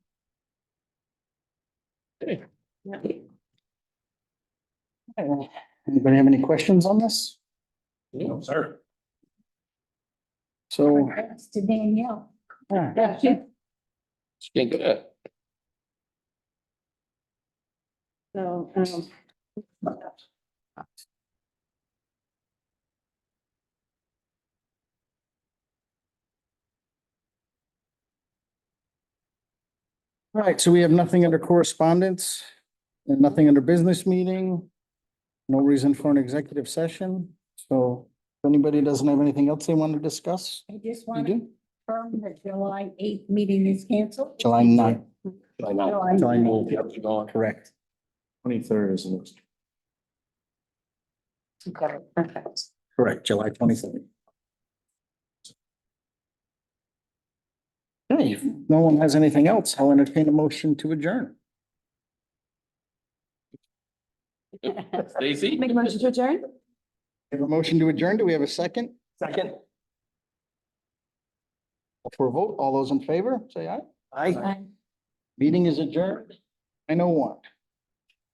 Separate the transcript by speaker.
Speaker 1: Anybody have any questions on this?
Speaker 2: No, sir.
Speaker 1: So,
Speaker 3: Thanks to Danielle.
Speaker 1: yeah,
Speaker 2: She ain't good at it.
Speaker 3: So, um.
Speaker 1: all right, so we have nothing under correspondence and nothing under business meeting. No reason for an executive session, so if anybody doesn't have anything else they want to discuss,
Speaker 3: I just
Speaker 1: you
Speaker 3: want to
Speaker 1: do?
Speaker 3: confirm that July eighth meeting is canceled.
Speaker 1: July ninth,
Speaker 2: I know.
Speaker 3: July
Speaker 1: July
Speaker 3: ninth.
Speaker 2: Yep, she's gone.
Speaker 1: correct.
Speaker 4: Twenty-third is the next.
Speaker 3: Okay, perfect.
Speaker 1: Correct, July twenty-third. Okay, if no one has anything else, I'll entertain a motion to adjourn.
Speaker 2: Stacy?
Speaker 3: Make a motion to adjourn?
Speaker 1: We Have a motion to adjourn, do we have a second?
Speaker 2: Second.
Speaker 1: For a vote, all those in favor, say aye.
Speaker 2: Aye.
Speaker 3: Aye.
Speaker 1: Meeting is adjourned. I know oh one.